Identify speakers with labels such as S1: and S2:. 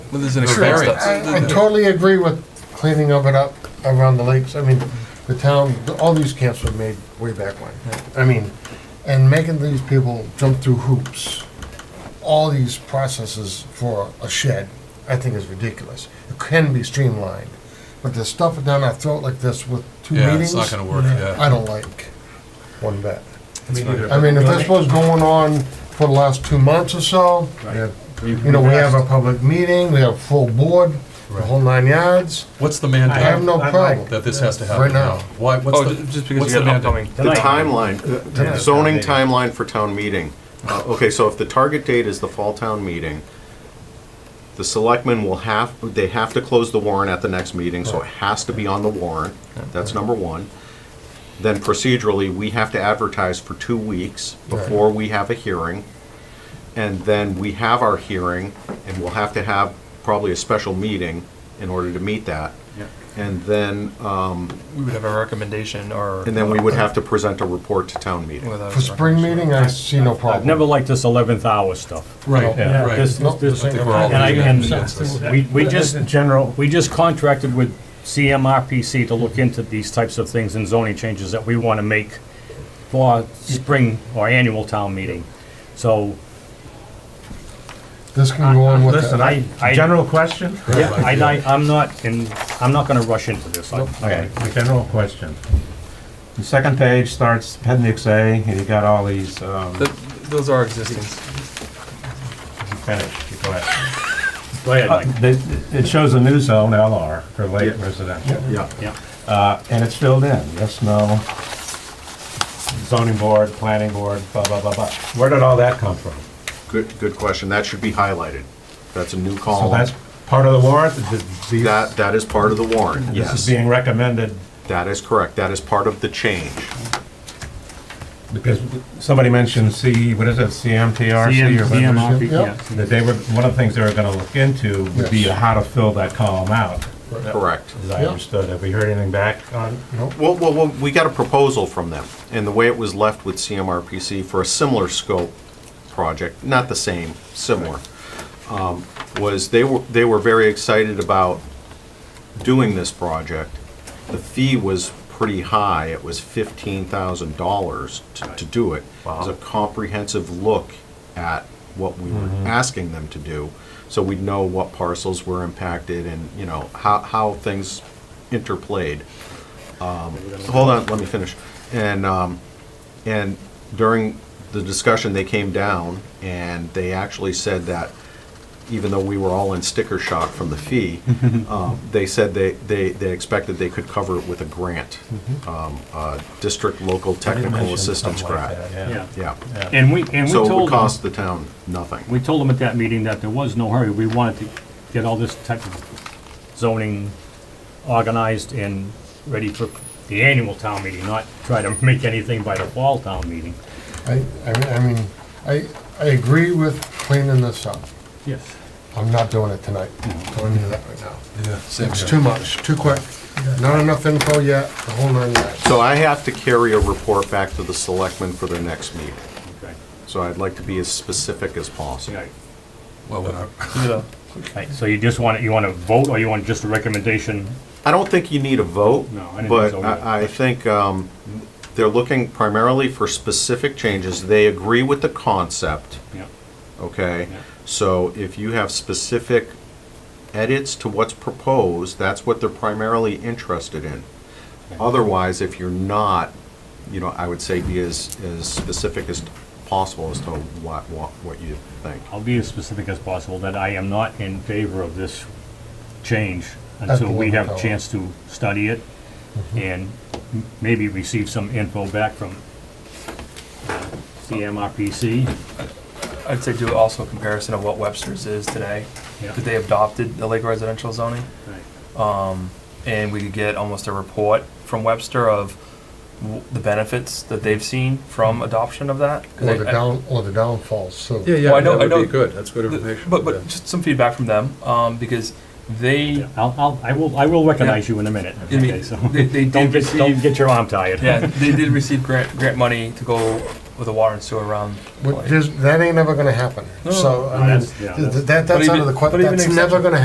S1: Well, there's an
S2: Sure, I-
S1: experience.
S2: I-
S3: I totally agree with cleaning of it up around the lakes. I mean, the town, all these camps were made way back when. I mean, and making these people jump through hoops, all these processes for a shed, I think is ridiculous. It can be streamlined, but to stuff it down our throat like this with two
S1: Yeah,
S3: meetings,
S1: it's not gonna work,
S3: I
S1: yeah.
S3: don't like one bit.
S1: It's fine.
S3: I mean, if this was going on for the last two months or so, you know, we have a public meeting, we have a full board, the whole nine yards.
S1: What's the
S3: I
S1: mandate?
S3: have no
S4: I like
S3: problem.
S1: That this has to happen
S3: Right now.
S1: now? Why,
S2: Oh,
S1: what's
S2: ju-
S1: the?
S2: just because
S1: what's
S2: you got
S1: the
S2: an
S1: mandate?
S2: upcoming.
S5: The timeline, uh, the zoning timeline for town meeting. Uh, Okay, so if the target date is the fall town meeting, the selectmen will have, they have to close the warrant at the next meeting, so it has to be on the warrant. That's number one. Then procedurally, we have to advertise for two weeks before we have a hearing. And then we have our hearing, and we'll have to have probably a special meeting in order to meet that. And then, um,
S2: We would have a recommendation or.
S5: and then we would have to present a report to town meeting.
S2: without a
S3: For spring meeting, I see no
S6: I've
S3: problem.
S6: never liked this 11th hour stuff.
S1: Right,
S6: Yeah,
S1: right.
S6: this-
S3: Nope,
S6: this-
S3: I think we're
S1: all
S6: And I-
S1: leaning
S6: and
S1: against this.
S6: We we just, general, we just contracted with CMRPC to look into these types of things and zoning changes that we want to make for spring or annual town meeting. So
S3: This can go on with
S4: Listen,
S3: it.
S4: I,
S6: I-
S4: general question,
S6: Yeah, I, I- I'm not, in I'm not gonna rush into this. I-
S4: okay, general question. The second page starts appendix A, and you got all these, um,
S2: Th- Those are existing.
S4: finish, you go ahead. Uh,
S6: Go ahead, Mike.
S4: They- It shows a new zone, LR, for light residential,
S5: Yeah.
S6: Yeah.
S4: uh, and it's filled in, yes, no, zoning board, planning board, blah, blah, blah, blah. Where did all that come from?
S5: Good, good question. That should be highlighted. That's a new
S4: So
S5: column.
S4: that's part of the warrant, th- these-
S5: That, that is part of the warrant,
S4: this
S5: yes.
S4: is being recommended
S5: That is correct. That is part of the change.
S4: Because somebody mentioned C, what is it, CMTRC? or whatever it is?
S3: yeah.
S4: That they were, one of the things they were gonna look into would be
S3: Yes.
S4: how to fill that column out,
S5: Correct.
S4: as I
S3: Yeah.
S4: understood. Have we heard anything back on?
S5: Well, well, well, we got a proposal from them, and the way it was left with CMRPC for a similar scope project, not the same, similar, um, was they were, they were very excited about doing this project. The fee was pretty high, it was fifteen thousand dollars to do it. It was a comprehensive look at what we were asking them to do, so we'd know what parcels were impacted and, you know, how, how things interplayed hold on, let me finish. And, um, and during the discussion, they came down and they actually said that even though we were all in sticker shock from the fee, um, they said they, they, they expected they could cover it with a grant. Um, uh, district local
S4: Somebody
S5: technical
S4: mentioned
S5: assistance
S4: something like
S5: grant.
S4: that,
S6: Yeah.
S5: Yeah.
S6: And we, and we
S5: So it would
S6: told them,
S5: cost the town nothing.
S6: we told them at that meeting that there was no hurry. We wanted to get all this type of zoning organized and ready for the annual town meeting, not try to make anything by the fall town meeting.
S3: I, I mean- I mean, I, I agree with cleaning this up.
S6: Yes.
S3: I'm not doing it tonight. Telling you that right now.
S1: Yeah, same
S3: It's
S1: here.
S3: too much, too quick. Not enough info yet, the whole nine yards.
S5: So I have to carry a report back to the selectmen for their next meeting.
S6: Okay.
S5: So I'd like to be as specific as
S6: All
S5: possible.
S6: right.
S1: Well, we're not-
S6: Right, so you just want, you want to vote, or you want just a recommendation?
S5: I don't think you need a vote.
S6: No, I didn't
S5: But
S6: think so either.
S5: I, I think um, they're looking primarily for specific changes. They agree with the concept,
S6: Yeah.
S5: okay?
S6: Yeah.
S5: So if you have specific edits to what's proposed, that's what they're primarily interested in. Otherwise, if you're not, you know, I would say be as, as specific as possible as to what, what, what you think.
S6: I'll be as specific as possible, that I am not in favor of this change
S3: the
S6: until
S3: one
S6: we have a
S3: without-
S6: chance to study it and m- maybe receive some info back from uh, CMRPC.
S2: I'd say do also a comparison of what Webster's is today,
S6: Yeah.
S2: because they adopted the Lake residential zoning. Um,
S6: Right.
S2: and we could get almost a report from Webster of w- the benefits that they've seen from adoption of that. 'Cause
S3: Or Mm-hmm. the
S2: I- I-
S3: down, or the downfalls, so.
S1: Yeah, yeah,
S2: Well, I know- I
S1: that would
S2: know-
S1: be good, that's good
S2: the-
S1: information.
S2: But,
S1: yeah.
S2: but just some feedback from them, um, because they,
S6: I'll, I'll, I will, I will recognize you in a minute.
S2: I mean,
S6: Okay, so
S2: they- they did
S6: Don't get, don't
S2: receive-
S6: get your arm tired.
S2: yeah, they did receive grant, grant money to go with the water and sewer around.
S3: But there's- that ain't never gonna happen.
S2: No,
S3: So,
S6: no,
S3: I mean,
S6: that's- yeah,
S3: th- th- that, that's
S2: But
S3: out of
S2: even-
S3: the, que-
S2: but even
S3: that's
S2: exception-
S3: never gonna